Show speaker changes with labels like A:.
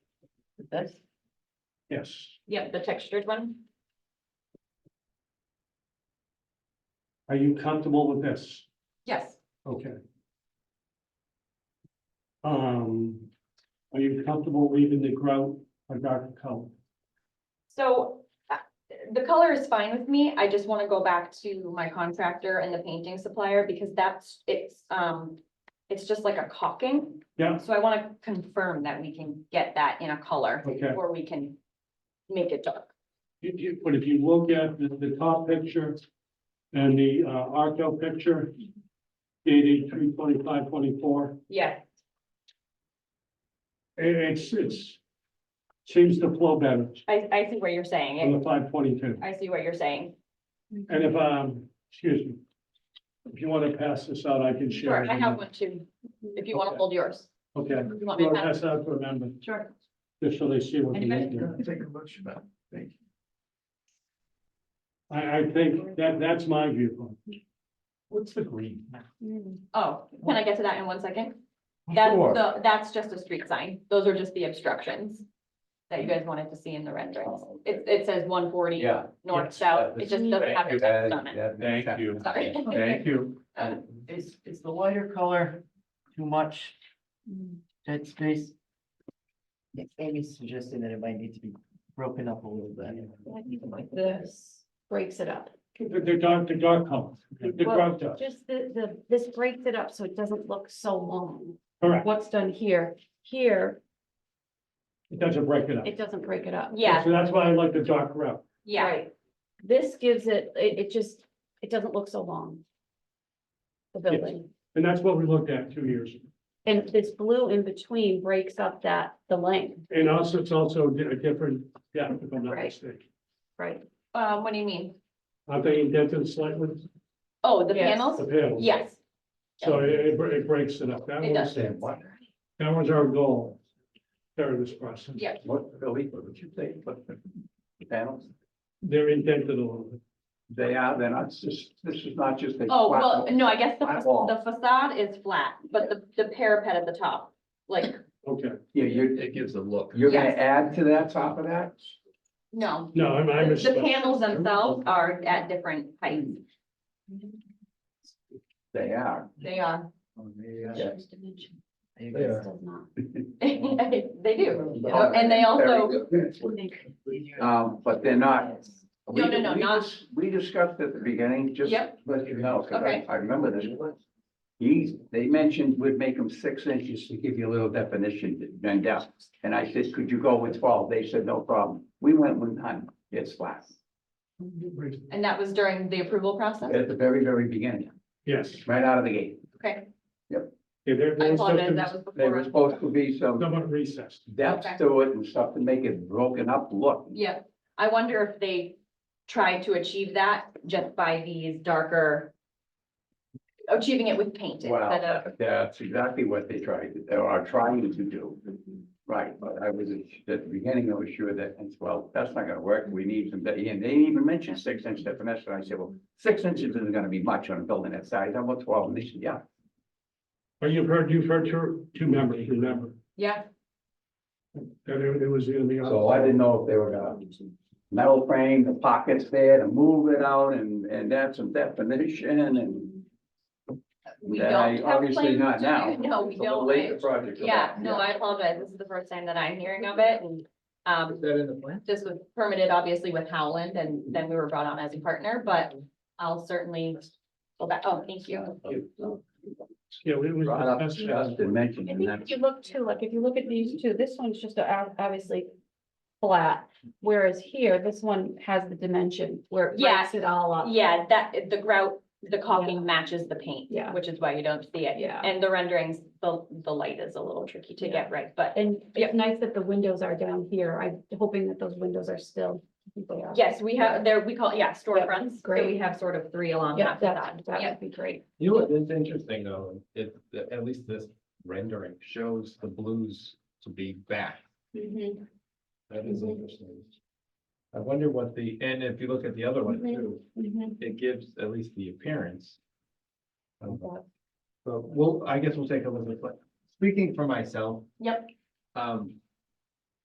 A: This,
B: Yes,
A: yeah, the textured one?
B: are you comfortable with this?
A: Yes.
B: Okay. Um, are you comfortable leaving the grout a dark color?
A: So uh, the color is fine with me. I just want to go back to my contractor and the painting supplier because that's, it's, um, it's just like a caulking.
B: Yeah.
A: So I want to confirm that we can get that in a color
B: Okay,
A: or we can make it dark.
B: You- you- but if you look at the, the top picture and the, uh, Arco picture dated three twenty-five twenty-four,
A: Yeah,
B: it, it's, it's seems to flow better
A: I, I see what you're saying.
B: on
A: It-
B: the five twenty-two.
A: I see what you're saying.
B: And if, um, excuse me, if you want to pass this out, I can share.
A: Sure,
B: it
A: I
B: with
A: have
B: you.
A: one too, if you want to
B: Okay.
A: hold yours.
B: Okay.
A: You want me
B: Well,
A: to pass?
B: that's not for a member,
A: Sure.
B: just so they see what we
A: Anybody?
B: did there.
C: Take a motion back. Thank
B: I, I think that, that's my viewpoint.
C: What's the green?
A: Oh, can I get to that in one second? That's the, that's just a street sign. Those are just the obstructions that you guys wanted to see in the renderings.
C: Oh, okay.
A: It, it says one forty
D: Yeah.
A: north,
C: yes,
A: south.
D: that
A: It
D: is-
A: just doesn't have your text on it.
C: Thank you.
A: Sorry.
C: Thank you.
A: Uh,
D: Is, is the lighter color too much dead space? I think Amy's suggesting that it might need to be broken up a little bit.
E: Like this breaks it up.
B: The, the dark, the dark color, the the
E: Well,
B: dark dark.
E: Just the, the, this breaks it up so it doesn't look so long.
B: Correct.
E: What's done here, here,
B: It doesn't break it up.
E: it doesn't break it up.
A: Yeah,
B: So that's why I like the dark route.
A: yeah,
E: Right. This gives it, it, it just, it doesn't look so long. The building,
B: And that's what we looked at two years. ago.
E: and this blue in between breaks up that, the length,
B: And also, it's also di- a different, yeah, if I'm not
E: Right.
B: mistaken.
E: right?
A: uh, what do you mean?
B: Are they indented slightly?
A: Oh, the
E: Yes.
B: The
A: panels?
B: panels?
A: Yes,
B: So it, it bre- it breaks it up. That
A: It
B: was,
A: does.
B: that was our goal during this process.
A: yeah,
C: What, Billy, what would you say? What the panels?
B: They're indented a little bit.
C: They are, they're not, just, this is not just a.
A: Oh, well, no, I guess the
C: Flat
A: fa-
C: wall.
A: the facade is flat, but the, the parapet at the top, like,
B: Okay.
C: Yeah, you're,
F: It gives a look.
C: you're gonna
A: Yes.
C: add to that top of that?
A: no.
B: No, I'm, I'm.
A: The the panels themselves are at different heights.
C: They are.
A: They are.
C: Oh, they are.
E: Shows dimension.
C: They
E: This
C: are.
E: does not.
A: They do.
C: Oh,
A: and they also-
C: very good. Um, but they're not.
A: No, no, no,
C: We- we
A: not-
C: dis- We discussed at the beginning, just
A: Yep.
C: let you know, because I,
A: Okay.
C: I remember this. He's, they mentioned would make them six inches to give you a little definition to bend out. And I said, could you go with twelve? They said, no problem. We went with nine. It's flat.
A: And that was during the approval process?
C: At the very, very beginning,
B: Yes.
C: right out of the gate.
A: Okay,
B: Yeah, there,
A: I
B: there was
A: apologize,
B: something
A: that was
C: There was
A: before.
C: supposed to be some
B: somewhat recessed.
C: depth
A: Okay.
C: to it and stuff to make it broken up look.
A: Yeah, I wonder if they tried to achieve that just by these darker. Achieving it with paint instead of,
C: Well, that's exactly what they tried, to- or are trying to do.
A: Mm-hmm.
C: Right, but I was, at the beginning, I was sure that, and, well, that's not gonna work, we need some, and they even mentioned six inch definition, I said, well, six inches isn't gonna be much on a building that size, how about twelve, and they said, yeah.
B: Well, you've heard, you've heard two, two members, remember,
A: yeah,
B: that it it was gonna be.
C: So I didn't know if they were gonna metal frame, the pockets there to move it out and, and add some definition and.
A: we
C: Then I-
A: don't have
C: obviously
A: plans
C: not
A: to do-
C: now.
A: No, we
C: It's a little
A: don't,
C: late
A: I-
C: in the project. for
A: yeah,
C: that,
A: no, I apologize, this is the first time that I'm hearing of it and, um,
F: that in the plan?
A: this was permitted obviously with Howland and then we were brought on as a partner, but I'll certainly go back, oh, thank you.
B: Yeah, it was.
C: Brought up,
B: discussed.
C: discussed and mentioned,
E: I
C: and
E: think
C: that's. Mhm.
E: if you look too, like if you look at these two, this one's just a- obviously flat, whereas here, this one has the dimension where it
A: Yeah.
E: breaks it all up.
A: Yeah, that, the grout, the
E: Yeah.
A: caulking matches the paint.
E: Yeah.
A: Which is why you don't see it.
E: Yeah.
A: And the renderings, the, the light is a little tricky to get right, but
E: And
A: Yeah.
E: it's nice that the windows are down here. I'm hoping that those windows are still. I think they are.
A: yes, we have, there, we call, yeah, storefronts. So We
E: great.
A: have sort of three along
E: Yeah,
A: that
E: that,
A: facade.
E: that
A: Yeah,
E: would be great.
F: You know, what is interesting though, it, that- at least this rendering shows the blues to be back.
C: Mm-hmm,
A: Mhm.
F: That is interesting. I wonder what the, and if you look at the other one
A: Mhm.
F: too,
C: mm-hmm.
F: it gives at least the appearance. Um, of- But we'll, I guess we'll take a look at, it. speaking for myself.
A: Yep.
F: Um,